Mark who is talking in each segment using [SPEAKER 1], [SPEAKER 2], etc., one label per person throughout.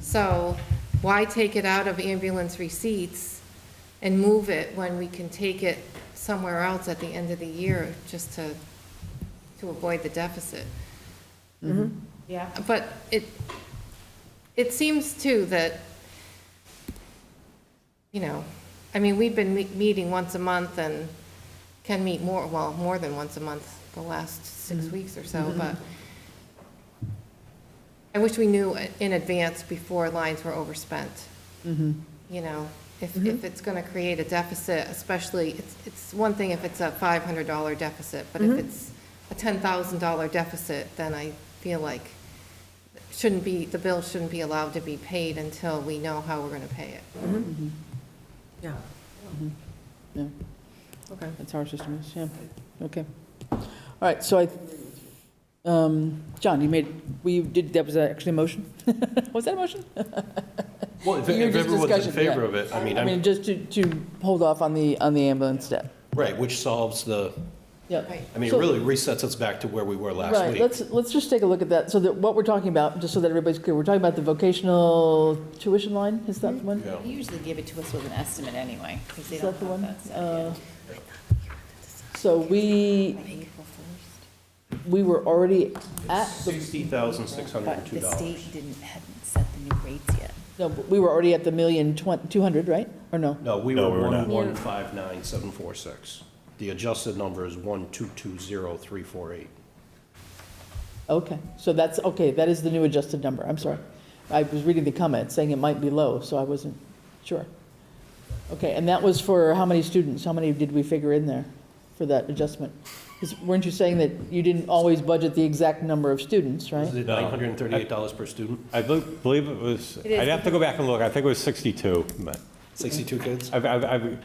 [SPEAKER 1] So why take it out of ambulance receipts and move it when we can take it somewhere else at the end of the year just to, to avoid the deficit?
[SPEAKER 2] Yeah.
[SPEAKER 1] But it, it seems too that, you know, I mean, we've been me- meeting once a month and can meet more, well, more than once a month the last six weeks or so, but I wish we knew in advance before lines were overspent.
[SPEAKER 3] Mm-hmm.
[SPEAKER 1] You know, if,
[SPEAKER 4] Mm-hmm.
[SPEAKER 1] if it's going to create a deficit, especially, it's, it's one thing if it's a $500 deficit, but
[SPEAKER 4] Mm-hmm.
[SPEAKER 1] if it's a $10,000 deficit, then I feel like shouldn't be, the bill shouldn't be allowed to be paid until we know how we're going to pay it.
[SPEAKER 2] Mm-hmm. Yeah.
[SPEAKER 3] Mm-hmm. Yeah,
[SPEAKER 2] Okay.
[SPEAKER 3] that's how our system is, yeah, okay. All right, so I, um, John, you made, we did, that was actually a motion? Was that a motion?
[SPEAKER 5] Well, if
[SPEAKER 3] You're
[SPEAKER 5] if
[SPEAKER 3] just
[SPEAKER 5] everyone's in
[SPEAKER 3] discussion, yeah.
[SPEAKER 5] favor of it, I mean,
[SPEAKER 3] I mean,
[SPEAKER 5] I'm,
[SPEAKER 3] just to, to hold off on the, on the ambulance step.
[SPEAKER 5] right, which solves the,
[SPEAKER 3] Yeah.
[SPEAKER 1] Right.
[SPEAKER 5] I mean, it
[SPEAKER 3] So-
[SPEAKER 5] really resets us back to where we were last
[SPEAKER 3] Right,
[SPEAKER 5] week.
[SPEAKER 3] let's, let's just take a look at that, so that what we're talking about, just so that everybody's clear, we're talking about the vocational tuition line, is that the one?
[SPEAKER 5] Yeah.
[SPEAKER 6] They usually give it to us with an estimate anyway, because they
[SPEAKER 3] Is
[SPEAKER 6] don't
[SPEAKER 3] that the
[SPEAKER 6] have
[SPEAKER 3] one?
[SPEAKER 6] that stuff
[SPEAKER 3] Uh, So we,
[SPEAKER 6] yet. April
[SPEAKER 3] we were already at the
[SPEAKER 5] Sixty thousand, six hundred and
[SPEAKER 6] But
[SPEAKER 5] two
[SPEAKER 6] the
[SPEAKER 5] dollars.
[SPEAKER 6] state didn't, hadn't set the new rates yet.
[SPEAKER 3] No, but we were already at the million twen- 200, right? Or no?
[SPEAKER 5] No, we
[SPEAKER 4] No,
[SPEAKER 5] were
[SPEAKER 4] we were
[SPEAKER 5] one,
[SPEAKER 4] not.
[SPEAKER 5] one, five, nine, seven, four, six. The adjusted number is one, two, two, zero, three, four, eight.
[SPEAKER 3] Okay, so that's, okay, that is the new adjusted number, I'm sorry. I was reading the comment saying it might be low, so I wasn't sure. Okay, and that was for how many students? How many did we figure in there for that adjustment? 'Cause weren't you saying that you didn't always budget the exact number of students, right?
[SPEAKER 5] Is it
[SPEAKER 4] No.
[SPEAKER 5] nine hundred and thirty-eight dollars per student?
[SPEAKER 4] I bel- believe it was,
[SPEAKER 2] is,
[SPEAKER 4] I'd have to go back and look, I think it was 62, but
[SPEAKER 5] Sixty-two kids?
[SPEAKER 4] I've, I've, I've-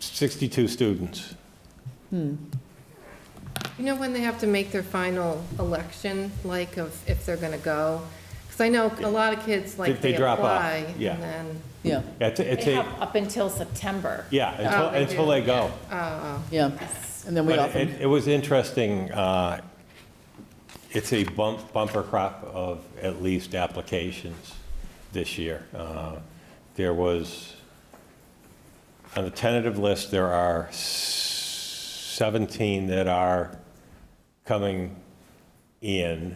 [SPEAKER 4] 62 students.
[SPEAKER 1] You know when they have to make their final election, like of if they're going to go? Because I know a lot of kids, like,
[SPEAKER 4] They-
[SPEAKER 1] they
[SPEAKER 4] they drop off,
[SPEAKER 1] apply.
[SPEAKER 4] yeah.
[SPEAKER 1] And then,
[SPEAKER 3] Yeah,
[SPEAKER 4] Yeah, It's, a- it's
[SPEAKER 6] They have
[SPEAKER 4] a,
[SPEAKER 6] up until September.
[SPEAKER 4] yeah, until,
[SPEAKER 1] Oh, they
[SPEAKER 4] until
[SPEAKER 1] do.
[SPEAKER 4] they go.
[SPEAKER 3] yeah, and then we
[SPEAKER 4] But
[SPEAKER 3] often,
[SPEAKER 4] it, it was interesting, uh, it's a bump, bumper crop of at least applications this year. Uh, There was, on the tentative list, there are s- 17 that are coming in,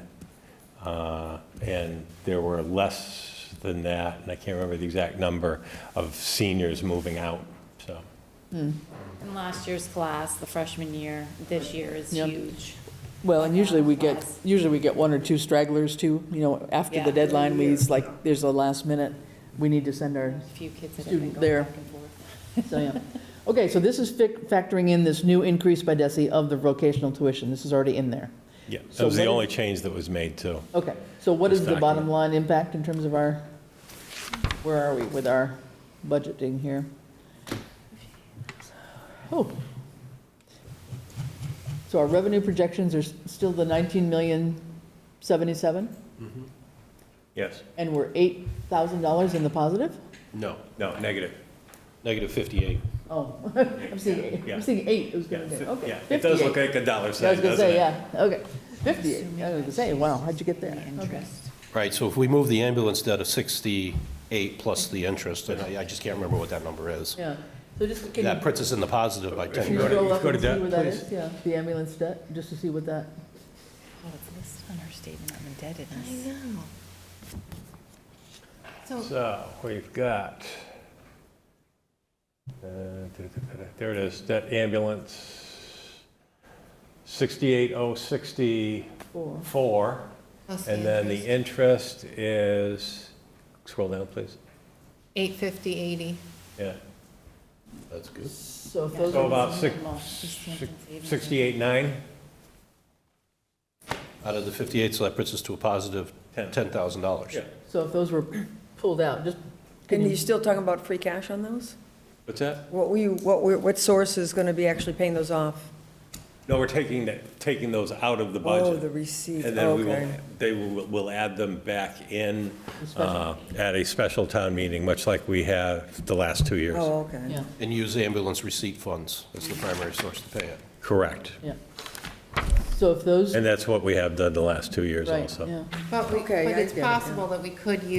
[SPEAKER 4] uh, and there were less than that, and I can't remember the exact number, of seniors moving out, so.
[SPEAKER 6] And last year's class, the freshman year, this year is
[SPEAKER 3] Yep.
[SPEAKER 6] huge.
[SPEAKER 3] well, and usually we get, usually we get one or two stragglers too, you know, after the
[SPEAKER 6] Yeah.
[SPEAKER 3] deadline, we, it's like, there's a last minute, we need to send our
[SPEAKER 6] A few kids that have been
[SPEAKER 3] Student
[SPEAKER 6] going
[SPEAKER 3] there.
[SPEAKER 6] back and forth.
[SPEAKER 3] So, yeah. Okay, so this is fic- factoring in this new increase by DESI of the vocational tuition. This is already in there.
[SPEAKER 4] Yeah,
[SPEAKER 3] So
[SPEAKER 4] that was
[SPEAKER 3] what
[SPEAKER 4] the
[SPEAKER 3] is-
[SPEAKER 4] only change that was made, too.
[SPEAKER 3] Okay, so what is the
[SPEAKER 4] Exactly.
[SPEAKER 3] bottom line impact in terms of our, where are we with our budgeting here? Oh. So our revenue projections are s- still the 19 million 77,
[SPEAKER 4] Yes.
[SPEAKER 3] and we're $8,000 in the positive?
[SPEAKER 5] No,
[SPEAKER 4] No, negative.
[SPEAKER 5] negative fifty-eight.
[SPEAKER 3] Oh, I'm seeing, eight- I'm
[SPEAKER 4] Yeah.
[SPEAKER 3] seeing eight, it was gonna be, okay. $58.
[SPEAKER 4] like a dollar
[SPEAKER 3] I was gonna say, yeah, okay. Fifty-eight, I was gonna say, wow, how'd you get there?
[SPEAKER 6] The
[SPEAKER 3] Okay.
[SPEAKER 6] interest.
[SPEAKER 5] Right, so if we move the ambulance debt of sixty-eight plus the interest, and I, I just can't remember what that number is.
[SPEAKER 3] Yeah, so just, can
[SPEAKER 5] That
[SPEAKER 3] you,
[SPEAKER 5] puts us in the positive by ten
[SPEAKER 3] can you
[SPEAKER 5] grand.
[SPEAKER 3] scroll up
[SPEAKER 4] go to
[SPEAKER 3] and see
[SPEAKER 4] debt,
[SPEAKER 3] where that
[SPEAKER 4] please?
[SPEAKER 3] is? Yeah, the ambulance debt, just to see what that,
[SPEAKER 6] Oh, it's listed on her statement of
[SPEAKER 1] I
[SPEAKER 6] indebtedness.
[SPEAKER 1] know. So
[SPEAKER 4] So, we've got, uh, there it is, that ambulance, 68064,
[SPEAKER 3] four,
[SPEAKER 1] plus
[SPEAKER 4] and then the
[SPEAKER 1] interest,
[SPEAKER 4] interest is, scroll down, please.
[SPEAKER 1] 850, 80.
[SPEAKER 4] Yeah,
[SPEAKER 5] That's good.
[SPEAKER 3] so if
[SPEAKER 6] Yeah.
[SPEAKER 3] those
[SPEAKER 4] so
[SPEAKER 3] are,
[SPEAKER 4] about six-
[SPEAKER 6] Normal, just
[SPEAKER 4] six-
[SPEAKER 6] savings.
[SPEAKER 4] 68.9?
[SPEAKER 5] Out of the 58, so that puts us to a positive
[SPEAKER 4] Ten.
[SPEAKER 5] $10,000.
[SPEAKER 4] Yeah.
[SPEAKER 3] so if those were pulled out, just, can
[SPEAKER 2] And you're
[SPEAKER 3] you,
[SPEAKER 2] still talking about free cash on those?
[SPEAKER 4] What's that?
[SPEAKER 2] What we, what, we- what source is going to be actually paying those off?
[SPEAKER 4] No, we're taking, that- taking those out of the budget.
[SPEAKER 2] Oh, the receipt,
[SPEAKER 4] And then we will,
[SPEAKER 2] okay.
[SPEAKER 4] they will, will add them back in uh, at a special town meeting, much like we have the last two years.
[SPEAKER 2] Oh, okay.
[SPEAKER 3] yeah,
[SPEAKER 5] And use ambulance receipt funds as the primary source to pay it.
[SPEAKER 4] Correct.
[SPEAKER 3] yeah. So if those,
[SPEAKER 4] And that's what we have done the last two years
[SPEAKER 3] right,
[SPEAKER 4] also.
[SPEAKER 3] yeah.
[SPEAKER 1] But we, but
[SPEAKER 2] Okay, I
[SPEAKER 1] it's
[SPEAKER 2] get it, yeah.
[SPEAKER 1] possible that we could use